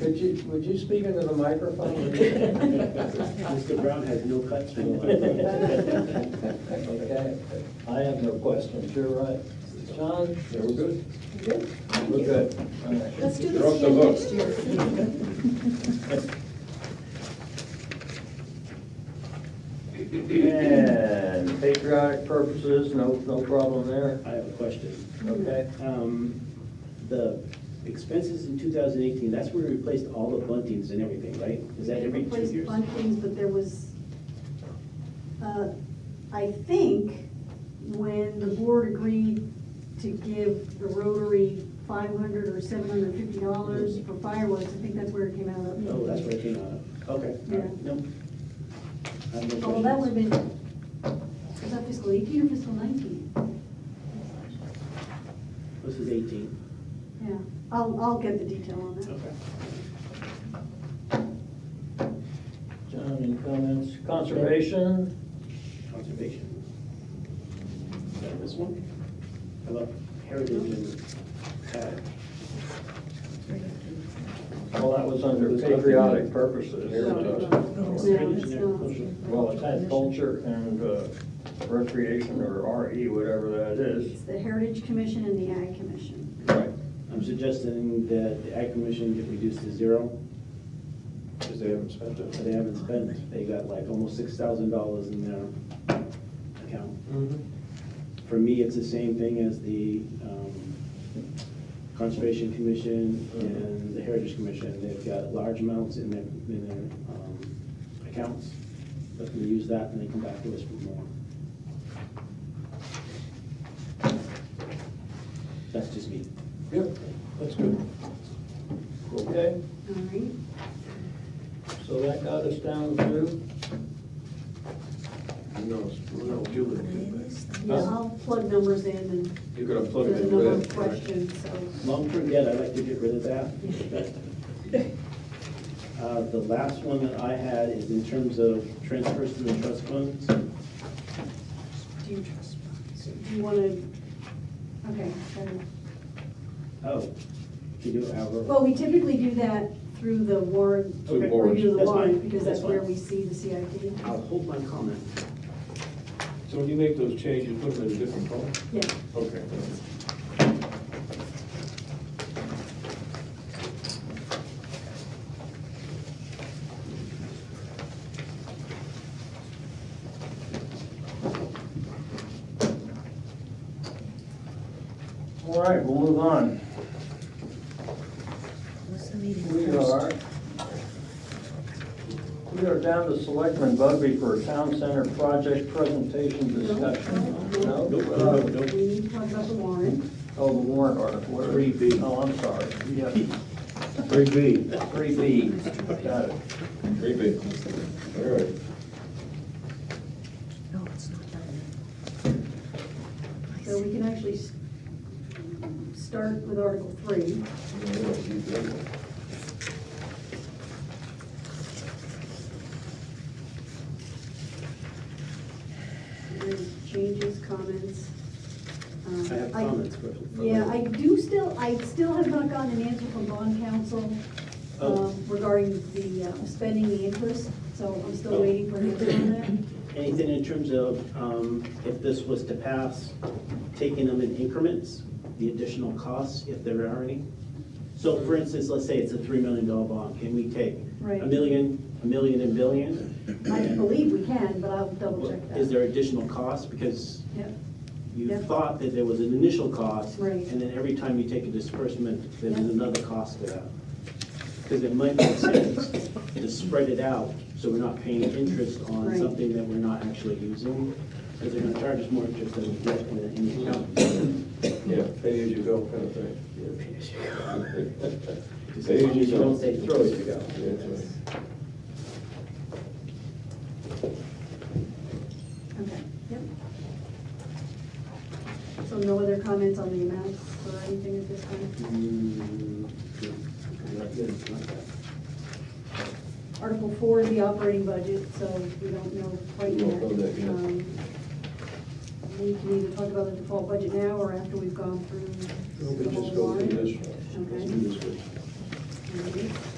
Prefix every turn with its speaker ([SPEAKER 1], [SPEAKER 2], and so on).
[SPEAKER 1] Could you, would you speak into the microphone?
[SPEAKER 2] Mr. Brown has no cuts. for life.
[SPEAKER 1] Okay.
[SPEAKER 3] I have no questions, you're right. John?
[SPEAKER 4] Yeah, we're good.
[SPEAKER 3] We're good. All right.
[SPEAKER 5] Let's do
[SPEAKER 4] You're
[SPEAKER 5] this
[SPEAKER 4] off the
[SPEAKER 5] again
[SPEAKER 4] hook.
[SPEAKER 5] next year.
[SPEAKER 3] And patriotic purposes, no, no problem there,
[SPEAKER 2] I have a question.
[SPEAKER 3] okay?
[SPEAKER 2] Um, The expenses in 2018, that's where we replaced all the buntings and everything, right? Is that every two
[SPEAKER 5] Replaced
[SPEAKER 2] years?
[SPEAKER 5] buntings, but there was, uh, I think, when the board agreed to give the Rotary five hundred or seven hundred fifty dollars for fireworks, I think that's where it came out of.
[SPEAKER 2] Oh, that's where it came out of. Okay, all right, no. I have no
[SPEAKER 5] Oh, well, that
[SPEAKER 2] questions.
[SPEAKER 5] would have been, was that fiscal eighteen or fiscal nineteen?
[SPEAKER 2] This is 18.
[SPEAKER 5] Yeah, I'll, I'll get the detail on that.
[SPEAKER 2] Okay.
[SPEAKER 3] John, any comments? Conservation?
[SPEAKER 2] Conservation. Is that this one? How about heritage and, uh,
[SPEAKER 3] Well, that was under
[SPEAKER 2] There's nothing-
[SPEAKER 3] patriotic purposes. Uh,
[SPEAKER 5] No,
[SPEAKER 4] Heritage.
[SPEAKER 5] No, it's not.
[SPEAKER 3] Well, it had culture and uh, recreation, or RE, whatever that is.
[SPEAKER 5] It's the Heritage Commission and the Ag Commission.
[SPEAKER 3] Right.
[SPEAKER 2] I'm suggesting that the ag commission get reduced to zero,
[SPEAKER 4] Because they haven't spent
[SPEAKER 2] but
[SPEAKER 4] it.
[SPEAKER 2] they haven't spent. They got like almost six thousand dollars in their account.
[SPEAKER 4] Mm-hmm.
[SPEAKER 2] For me, it's the same thing as the um, Conservation Commission and the Heritage Commission. They've got large amounts in their, in their um, accounts. Let them use that and they come back to us for more. That's just me.
[SPEAKER 4] Yep, that's good.
[SPEAKER 3] Okay,
[SPEAKER 5] All right.
[SPEAKER 3] so that got us down to,
[SPEAKER 4] Who knows? We'll know Julie can get back.
[SPEAKER 5] Yeah, I'll plug numbers in and
[SPEAKER 4] You're gonna plug
[SPEAKER 5] there's
[SPEAKER 4] it
[SPEAKER 5] a
[SPEAKER 4] in
[SPEAKER 5] number of
[SPEAKER 4] with. right?
[SPEAKER 5] questions, so.
[SPEAKER 2] Long-term debt, I'd like to get rid of that. Uh, The last one that I had is in terms of transfers to the trust funds.
[SPEAKER 5] Do you trust Do you want to, okay. better.
[SPEAKER 2] Oh, to do our,
[SPEAKER 5] Well, we typically do that through the warrant,
[SPEAKER 4] Through the warrant.
[SPEAKER 5] review of the
[SPEAKER 2] That's fine.
[SPEAKER 5] warrant, because
[SPEAKER 2] That's
[SPEAKER 5] that's where
[SPEAKER 2] fine.
[SPEAKER 5] we see the CIP.
[SPEAKER 2] I'll hold my comment.
[SPEAKER 4] So when you make those changes, put them in a different color?
[SPEAKER 5] Yeah,
[SPEAKER 4] Okay.
[SPEAKER 3] all right, we'll move on.
[SPEAKER 6] What's the meeting
[SPEAKER 3] We
[SPEAKER 6] first?
[SPEAKER 3] are, we are down to Selectman Bugby for a town center project presentation discussion. No?
[SPEAKER 2] Nope.
[SPEAKER 5] we need to talk about the warrant.
[SPEAKER 3] Oh, the warrant article. what are we-
[SPEAKER 2] Three B.
[SPEAKER 3] Oh, I'm sorry. Yeah,
[SPEAKER 2] Three B.
[SPEAKER 3] Three B, got it.
[SPEAKER 4] Maybe. All right.
[SPEAKER 6] No, it's not done yet.
[SPEAKER 5] So we can actually s- start with Article Three.
[SPEAKER 4] Yeah, we don't need that one.
[SPEAKER 5] Any Changes, comments? Um,
[SPEAKER 2] I have comments for. for-
[SPEAKER 5] Yeah, I do still, I still have not gotten an answer from bond counsel
[SPEAKER 2] Oh.
[SPEAKER 5] um, regarding the uh, spending the interest, so I'm still
[SPEAKER 2] Oh.
[SPEAKER 5] waiting for an answer on that.
[SPEAKER 2] Anything in terms of, um, if this was to pass, taking them in increments, the additional costs, if there are any? So for instance, let's say it's a three million dollar bond, can we take
[SPEAKER 5] Right.
[SPEAKER 2] a million, a million and billion?
[SPEAKER 5] I believe we can, but I'll double check that.
[SPEAKER 2] Is there additional cost? Because
[SPEAKER 5] Yep,
[SPEAKER 2] you
[SPEAKER 5] Yeah.
[SPEAKER 2] thought that there was an initial cost.
[SPEAKER 5] Right.
[SPEAKER 2] And then every time you take a disbursement, there's
[SPEAKER 5] Yeah.
[SPEAKER 2] another cost to that. Because it might make sense to spread it out, so we're not paying interest on
[SPEAKER 5] Right.
[SPEAKER 2] something that we're not actually using. Because they're gonna charge us more interest than we get when it in the account.
[SPEAKER 4] Yeah, pay as you go kind of thing.
[SPEAKER 2] Because
[SPEAKER 4] Pay
[SPEAKER 2] as long
[SPEAKER 4] as
[SPEAKER 2] as
[SPEAKER 4] you
[SPEAKER 2] you
[SPEAKER 4] go.
[SPEAKER 2] don't say throw as you go.
[SPEAKER 4] Yeah, that's right.
[SPEAKER 5] okay, yep. So no other comments on the amounts or anything at this time?
[SPEAKER 2] Mm, yeah. Not good, not bad.
[SPEAKER 5] Article four is the operating budget, so we don't know quite
[SPEAKER 4] We
[SPEAKER 5] yet.
[SPEAKER 4] don't know that yet.
[SPEAKER 5] Um, We can either talk about the default budget now or after we've gone through
[SPEAKER 4] We
[SPEAKER 5] the
[SPEAKER 4] just
[SPEAKER 5] whole
[SPEAKER 4] go through
[SPEAKER 5] warrant.
[SPEAKER 4] this one. Let's do this one.
[SPEAKER 5] Okay.